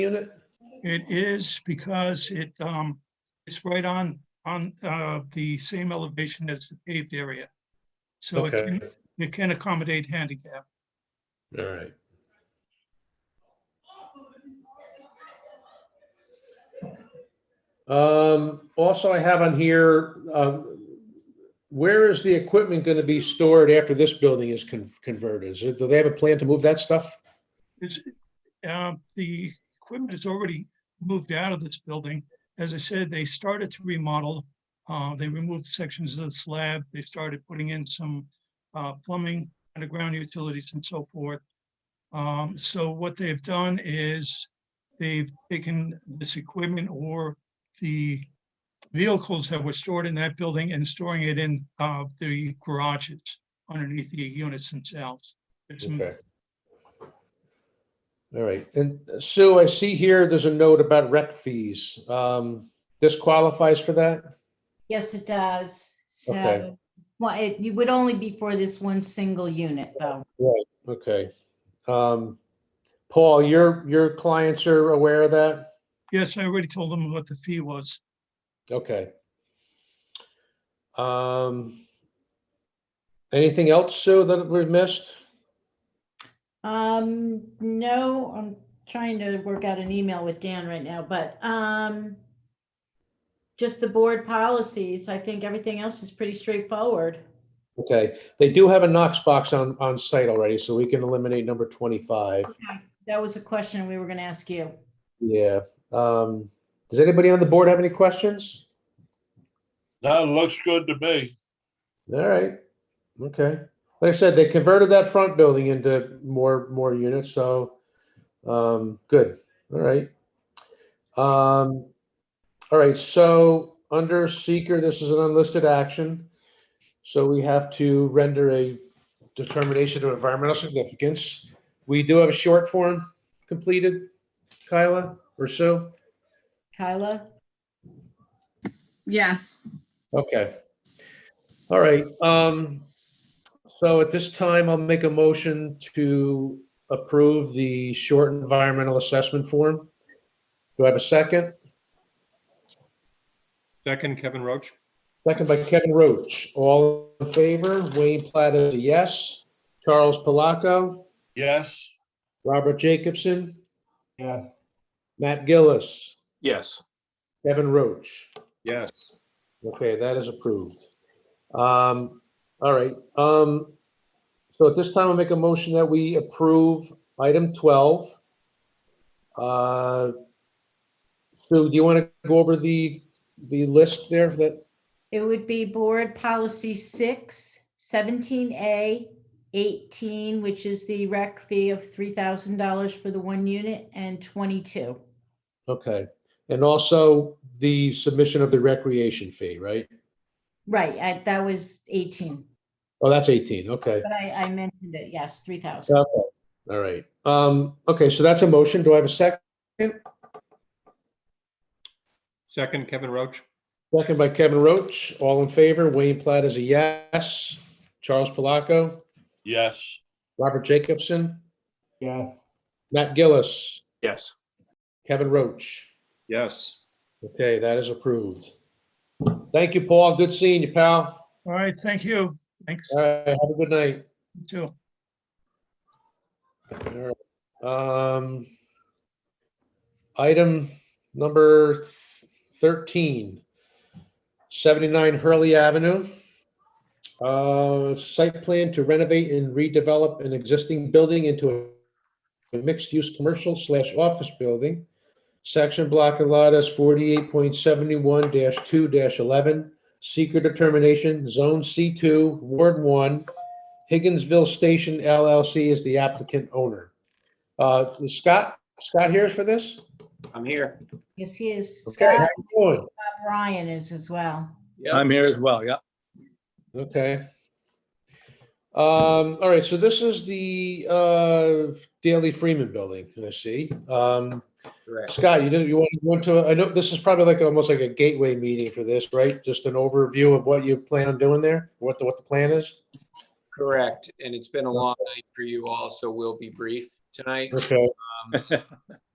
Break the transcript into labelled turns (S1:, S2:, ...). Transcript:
S1: unit?
S2: It is because it, um, it's right on, on, uh, the same elevation as the paved area. So it
S1: Okay,
S2: can, it can accommodate handicap.
S1: all right. Um, also I have on here, um, where is the equipment going to be stored after this building is con- converted? Is it, do they have a plan to move that stuff?
S2: It's, uh, the equipment is already moved out of this building. As I said, they started to remodel. Uh, they removed sections of the slab. They started putting in some, uh, plumbing, underground utilities and so forth. Um, so what they've done is they've taken this equipment or the vehicles that were stored in that building and storing it in, uh, the garages underneath the units themselves. It's m-
S1: Okay. All right, and uh, Sue, I see here, there's a note about rec fees. Um, this qualifies for that?
S3: Yes, it does.
S1: Okay.
S3: So, well, it, you would only be for this one single unit though.
S1: Okay. Um, Paul, your, your clients are aware of that?
S2: Yes, I already told them what the fee was.
S1: Okay. Um, anything else, Sue, that we've missed?
S3: Um, no, I'm trying to work out an email with Dan right now, but, um, just the board policies. I think everything else is pretty straightforward.
S1: Okay, they do have a Knox box on, on site already, so we can eliminate number twenty-five.
S3: That was a question we were going to ask you.
S1: Yeah. Um, does anybody on the board have any questions?
S4: That looks good to me.
S1: All right, okay. Like I said, they converted that front building into more, more units, so, um, good, all right. Um, all right, so under seeker, this is an unlisted action. So we have to render a determination of environmental significance. We do have a short form completed, Kyla or Sue?
S3: Kyla?
S5: Yes,
S1: Okay. All right, um, so at this time, I'll make a motion to approve the short environmental assessment form. Do I have a second?
S6: Second, Kevin Roach.
S1: Second by Kevin Roach. All in favor? Wayne Platt is a yes. Charles Palaco,
S4: Yes,
S1: Robert Jacobson. Yes. Matt Gillis,
S7: Yes,
S1: Kevin Roach.
S6: Yes.
S1: Okay, that is approved. Um, all right, um, so at this time, I'll make a motion that we approve item twelve. Uh, Sue, do you want to go over the, the list there that,
S3: It would be board policy six, 17A, 18, which is the rec fee of $3,000 for the one unit and 22.
S1: okay, and also the submission of the recreation fee, right?
S3: Right, I, that was 18,
S1: Oh, that's eighteen, okay,
S3: but I, I mentioned it, yes, 3,000.
S1: okay, all right. Um, okay, so that's a motion. Do I have a second?
S6: Second, Kevin Roach.
S1: Second by Kevin Roach. All in favor? Wayne Platt is a yes. Charles Palaco?
S4: yes,
S1: Robert Jacobson? Yes. Matt Gillis,
S7: yes,
S1: Kevin Roach.
S6: Yes.
S1: Okay, that is approved. Thank you, Paul. Good seeing you, pal.
S2: All right, thank you. Thanks,
S1: All right, have a good night.
S2: you too.
S1: All right. Um, Item number thirteen, seventy-nine Hurley Avenue. Uh, Site plan to renovate and redevelop an existing building into a mixed-use commercial slash office building. Section block and lot is forty-eight point seventy-one two eleven. Seeker determination, zone C two, Ward one. Higginsville Station LLC is the applicant owner. Uh, is Scott, Scott here for this?
S8: I'm here.
S3: Yes, he is.
S1: Okay, how
S3: Scott
S1: you doing?
S3: Ryan is as well.
S7: I'm here as well, yeah.
S1: Okay. Um, all right, so this is the, uh, Daley Freeman Building, I see. Um,
S8: Correct.
S1: Scott, you didn't, you want to go into, I know this is probably like, almost like a gateway meeting for this, right? Just an overview of what you plan on doing there, what the, what the plan is?
S8: Correct. And it's been a long night for you all, so we'll be brief tonight.
S1: Okay.